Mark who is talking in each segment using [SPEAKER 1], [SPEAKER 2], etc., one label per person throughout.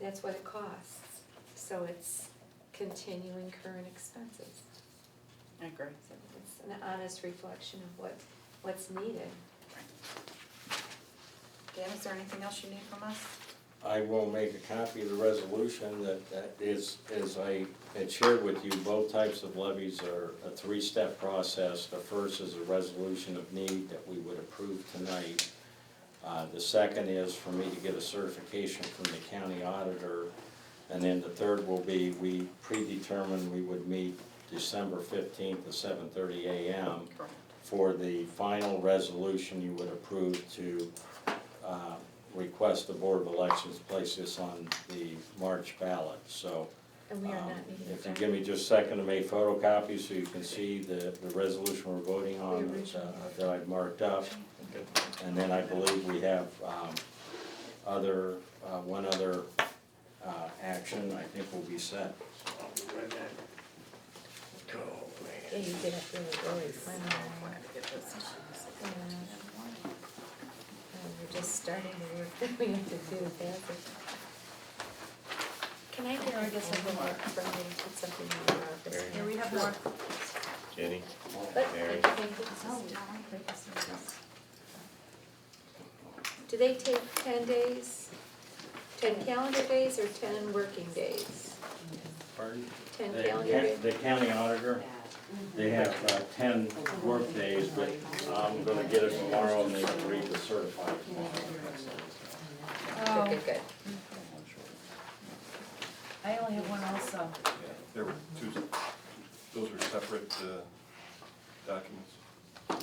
[SPEAKER 1] That's what it costs, so it's continuing current expenses.
[SPEAKER 2] I agree.
[SPEAKER 1] So it's an honest reflection of what, what's needed.
[SPEAKER 2] Dan, is there anything else you need from us?
[SPEAKER 3] I will make a copy of the resolution that, that is, as I had shared with you, both types of levies are a three-step process. The first is a resolution of need that we would approve tonight. Uh, the second is for me to get a certification from the county auditor. And then the third will be, we predetermined we would meet December fifteenth at seven thirty AM
[SPEAKER 2] Correct.
[SPEAKER 3] for the final resolution you would approve to uh, request the Board of Elections place this on the March ballot, so.
[SPEAKER 1] And we are
[SPEAKER 3] um,
[SPEAKER 1] not meeting
[SPEAKER 3] If you
[SPEAKER 1] that.
[SPEAKER 3] give me just a second to make photocopies so you can see the, the resolution we're voting on
[SPEAKER 1] The
[SPEAKER 3] that's, uh,
[SPEAKER 1] original.
[SPEAKER 3] that I've marked up. And then I believe we have um, other, uh, one other uh, action, I think will be set.
[SPEAKER 4] Yeah, you did it really early,
[SPEAKER 1] Why
[SPEAKER 4] fine.
[SPEAKER 1] not?
[SPEAKER 2] Glad to get this.
[SPEAKER 4] We're just starting to work.
[SPEAKER 1] We have to do that.
[SPEAKER 2] Can I
[SPEAKER 1] Here, I guess I will mark from you, put something in your office.
[SPEAKER 2] Here, we have more.
[SPEAKER 5] Jenny,
[SPEAKER 1] But,
[SPEAKER 5] Mary.
[SPEAKER 1] thank you.
[SPEAKER 2] Oh,
[SPEAKER 1] Do they take ten days, ten calendar days or ten working days?
[SPEAKER 3] Pardon?
[SPEAKER 1] Ten
[SPEAKER 3] The
[SPEAKER 1] calendar days?
[SPEAKER 3] ca- The county auditor, they have uh, ten workdays, but I'm gonna get it tomorrow and they can read the certified tomorrow.
[SPEAKER 1] Okay, good.
[SPEAKER 4] I only have one also.
[SPEAKER 5] There were two, those were separate uh, documents.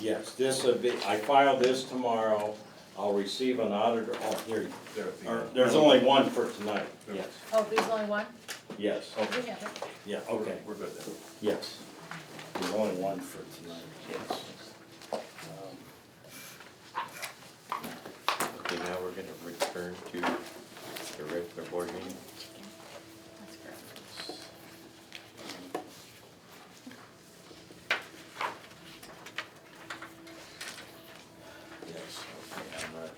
[SPEAKER 3] Yes, this would be, I file this tomorrow, I'll receive an auditor, oh, here,
[SPEAKER 5] They're at the
[SPEAKER 3] or,
[SPEAKER 5] end.
[SPEAKER 3] there's only one for tonight,
[SPEAKER 5] There was-
[SPEAKER 3] yes,
[SPEAKER 4] Oh, there's only one?
[SPEAKER 3] yes,
[SPEAKER 4] We
[SPEAKER 5] Okay,
[SPEAKER 4] have it.
[SPEAKER 3] yeah, okay,
[SPEAKER 5] we're good then.
[SPEAKER 3] yes. There's only one for tonight, yes. Um,
[SPEAKER 6] Okay, now we're gonna return to the regular board meeting.
[SPEAKER 3] Yes, okay, I'm ready.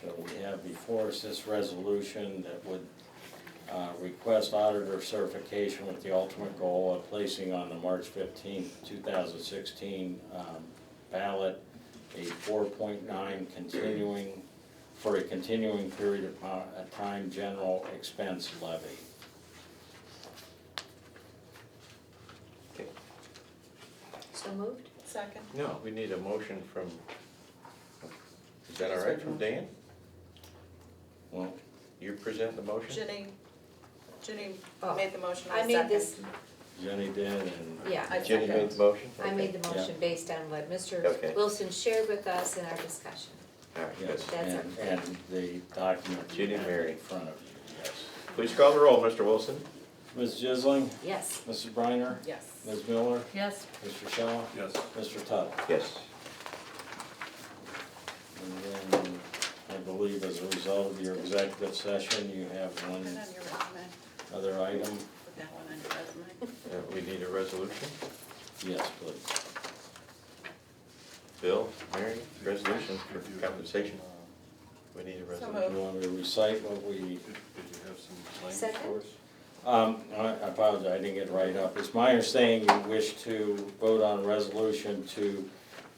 [SPEAKER 3] So we have before us this resolution that would uh, request auditor certification with the ultimate goal of placing on the March fifteenth, two thousand sixteen um, ballot a four point nine continuing, for a continuing period of po- a time general expense levy.
[SPEAKER 6] Okay.
[SPEAKER 1] So moved?
[SPEAKER 2] Second.
[SPEAKER 6] No, we need a motion from, is that all right from Dan?
[SPEAKER 3] Well,
[SPEAKER 6] You present the motion?
[SPEAKER 2] Jenny, Jenny
[SPEAKER 1] Oh.
[SPEAKER 2] made the motion, I
[SPEAKER 1] I made this,
[SPEAKER 2] second.
[SPEAKER 3] Jenny did and.
[SPEAKER 1] yeah, I
[SPEAKER 6] Jenny
[SPEAKER 1] second.
[SPEAKER 6] made the motion?
[SPEAKER 1] I made the
[SPEAKER 3] Okay.
[SPEAKER 1] motion based on what
[SPEAKER 6] Okay.
[SPEAKER 1] Mr. Wilson shared with us in our discussion.
[SPEAKER 6] All right, good.
[SPEAKER 3] Yes,
[SPEAKER 1] That's
[SPEAKER 3] and, and the document you
[SPEAKER 6] Jenny
[SPEAKER 3] have
[SPEAKER 6] Mary.
[SPEAKER 3] in front of you, yes.
[SPEAKER 6] Please call the roll, Mr. Wilson.
[SPEAKER 3] Ms. Jisling?
[SPEAKER 1] Yes,
[SPEAKER 3] Mrs. Briner?
[SPEAKER 2] Yes.
[SPEAKER 3] Ms. Miller?
[SPEAKER 4] Yes,
[SPEAKER 3] Mr. Shaw?
[SPEAKER 5] Yes,
[SPEAKER 3] Mr. Tuttle?
[SPEAKER 6] Yes.
[SPEAKER 3] And then, I believe as a result of your executive session, you have
[SPEAKER 2] Put
[SPEAKER 3] one
[SPEAKER 2] that on your resume,
[SPEAKER 3] other item?
[SPEAKER 2] put that one on your resume.
[SPEAKER 6] Uh, we need a resolution.
[SPEAKER 3] Yes, please.
[SPEAKER 6] Bill, Mary, resolution for compensation. We need a resolution.
[SPEAKER 3] Do you want me to recite what we
[SPEAKER 5] um, did did you have some language
[SPEAKER 1] Second.
[SPEAKER 5] for us?
[SPEAKER 3] Um, I I apologize, I didn't get it right up. It's my understanding you wish to vote on a resolution to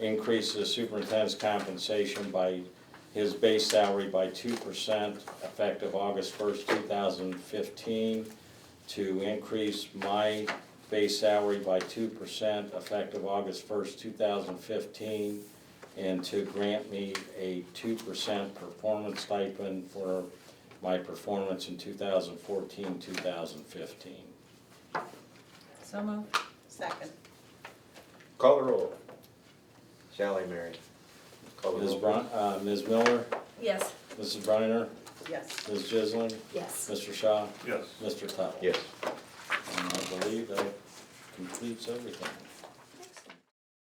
[SPEAKER 3] increase the superintendent's compensation by his base salary by two percent effective August first, two thousand fifteen, to increase my base salary by two percent effective August first, two thousand fifteen, and to grant me a two percent performance stipend for my performance in 2014, 2015.
[SPEAKER 4] so moved.
[SPEAKER 2] Second.
[SPEAKER 6] Call the roll. Sally, Mary. Call the
[SPEAKER 3] Ms.
[SPEAKER 6] roll.
[SPEAKER 3] Brun, uh, Ms. Miller,
[SPEAKER 4] Yes.
[SPEAKER 3] Mrs. Briner,
[SPEAKER 2] Yes.
[SPEAKER 3] Ms. Jisling,
[SPEAKER 1] yes.
[SPEAKER 3] Mr. Shaw,
[SPEAKER 5] Yes.
[SPEAKER 3] Mr. Tuttle.
[SPEAKER 6] Yes.
[SPEAKER 3] And I believe that completes everything.